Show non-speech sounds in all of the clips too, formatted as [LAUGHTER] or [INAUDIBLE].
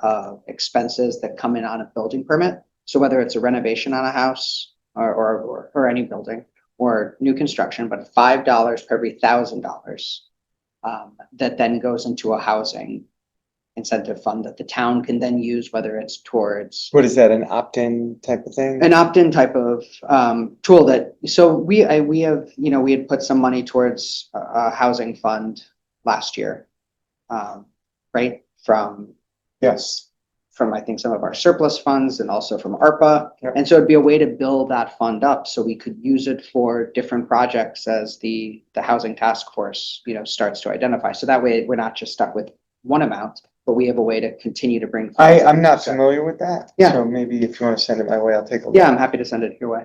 uh, expenses that come in on a building permit. So whether it's a renovation on a house or, or, or- or any building or new construction, but five dollars per every thousand dollars. Um, that then goes into a housing incentive fund that the town can then use, whether it's towards What is that, an opt-in type of thing? an opt-in type of um, tool that, so we, I, we have, you know, we had put some money towards a, a housing fund last year. Um, right, from, Yes, from I think some of our surplus funds and also from ARPA. Yep. And so it'd be a way to build that fund up so we could use it for different projects as the, the housing task force, you know, starts to identify. So that way we're not just stuck with one amount, but we have a way to continue to bring. I, funds in. I'm not So- familiar with that. Yeah. So maybe if you want to send it my way, I'll take a look. Yeah, I'm happy to send it your way.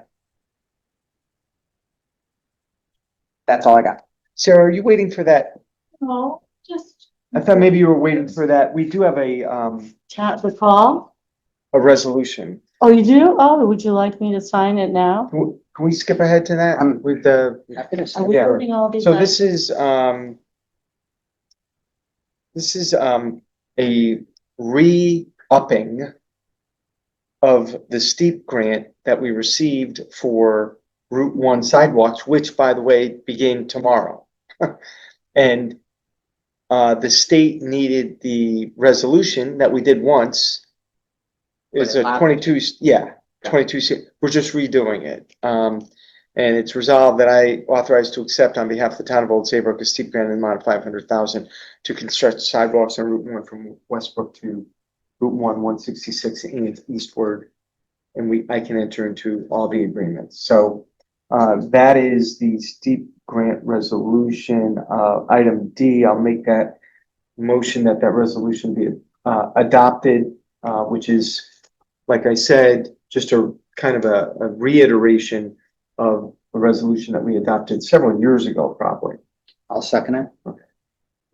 That's all I got. Sarah, are you waiting for that? No, just I thought maybe you were waiting for that. We do have a, um, chat the call. a resolution. Oh, you do? Oh, would you like me to sign it now? Can we- can we skip ahead to that Um, with the, Happy to Are send we Yeah. voting all these? so out? this is, um, this is, um, a re-upping of the steep grant that we received for Route One sidewalks, which by the way, begin tomorrow. [LAUGHS] And, uh, the state needed the resolution that we did once. It's But it a lapsed. twenty-two, yeah, twenty-two, se- we're just redoing it. Um, and it's resolved that I authorize to accept on behalf of the town of Old Saybrook a steep grant in the amount of five hundred thousand to construct sidewalks on Route One from Westbrook to Route One, one sixty-six and eastward. And we, I can enter into all the agreements. So uh, that is the steep grant resolution. Uh, item D, I'll make that motion that that resolution be uh, adopted, uh, which is, like I said, just a kind of a a reiteration of a resolution that we adopted several years ago, probably. I'll second it.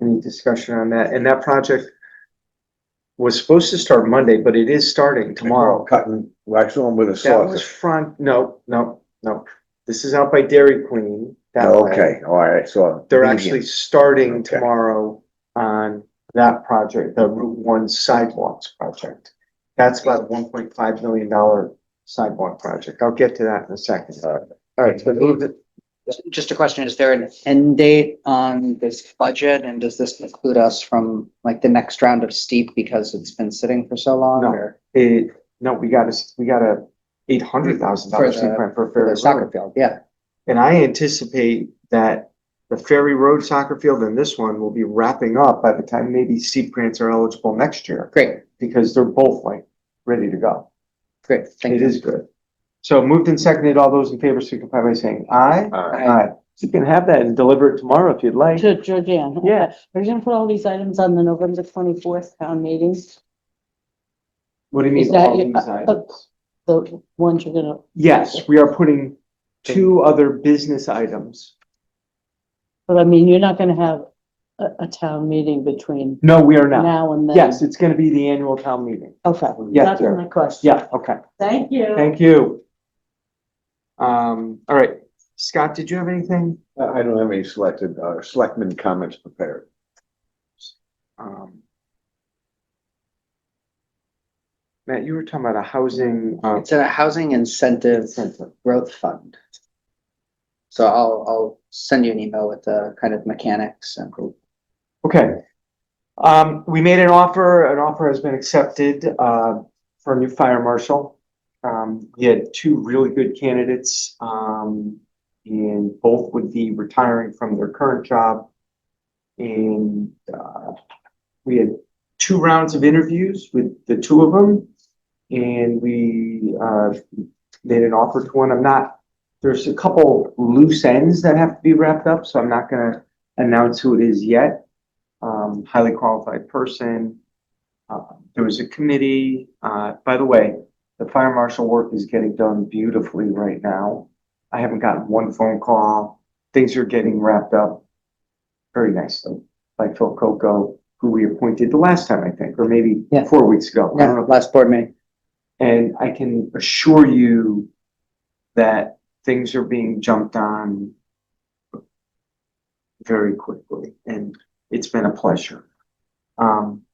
Any discussion on that? And that project was supposed to start Monday, but it is starting tomorrow. Cutting, waxing them with a That was sausage. front, no, no, no. This is out by Dairy Queen. that way. Oh, Okay, all right, so. They're medium. actually starting Okay. tomorrow on that project, the Route One sidewalks project. That's about a one point five million dollar sidewalk project. I'll get to that in a second. All right. All right, so move it. Just a question, is there an end date on this budget and does this include us from like the next round of steep because it's been sitting for so long? No. or It, no, we got a, we got a eight hundred thousand For dollar the- street grant for For Ferry the soccer Road. field, yeah. And I anticipate that the Ferry Road soccer field and this one will be wrapping up by the time maybe steep grants are eligible next year. Great, Because they're both like ready to go. great, thank It you. is good. So moved and seconded, all those in favor signify by saying aye. All right. Aye. You can have that and deliver it tomorrow if you'd like. To Georgiana. okay. Yeah. We're gonna put all these items on the November twenty-fourth town meetings, What do you Is mean? that all your- these uh, uh, items? the ones you're gonna, Yes, we are putting two other business items. but I mean, you're not gonna have a, a town meeting between No, we are not. now and then. Yes, it's gonna be the annual town meeting. Okay, Yes, that's sir. my question. Yeah, okay, Thank you. thank you. Um, all right, Scott, did you have anything? I I don't have any selected, uh, selectmen comments prepared. Um, Matt, you were talking about a housing, uh, It's a housing incentive Incentive. growth fund. So I'll, I'll send you an email with the kind of mechanics and Okay. Um, we made an offer, an offer has been accepted, uh, for a new fire marshal. Um, we had two really good candidates, um, and both would be retiring from their current job. And, uh, we had two rounds of interviews with the two of them. And we, uh, made an offer to one. I'm not, there's a couple loose ends that have to be wrapped up, so I'm not gonna announce who it is yet. Um, highly qualified person. Uh, there was a committee, uh, by the way, the fire marshal work is getting done beautifully right now. I haven't gotten one phone call. Things are getting wrapped up very nicely by Phil Coco, who we appointed the last time, I think, or maybe Yeah. four weeks ago. I don't know. last board meeting. And I can assure you that things are being jumped on very quickly, and it's been a pleasure. Um,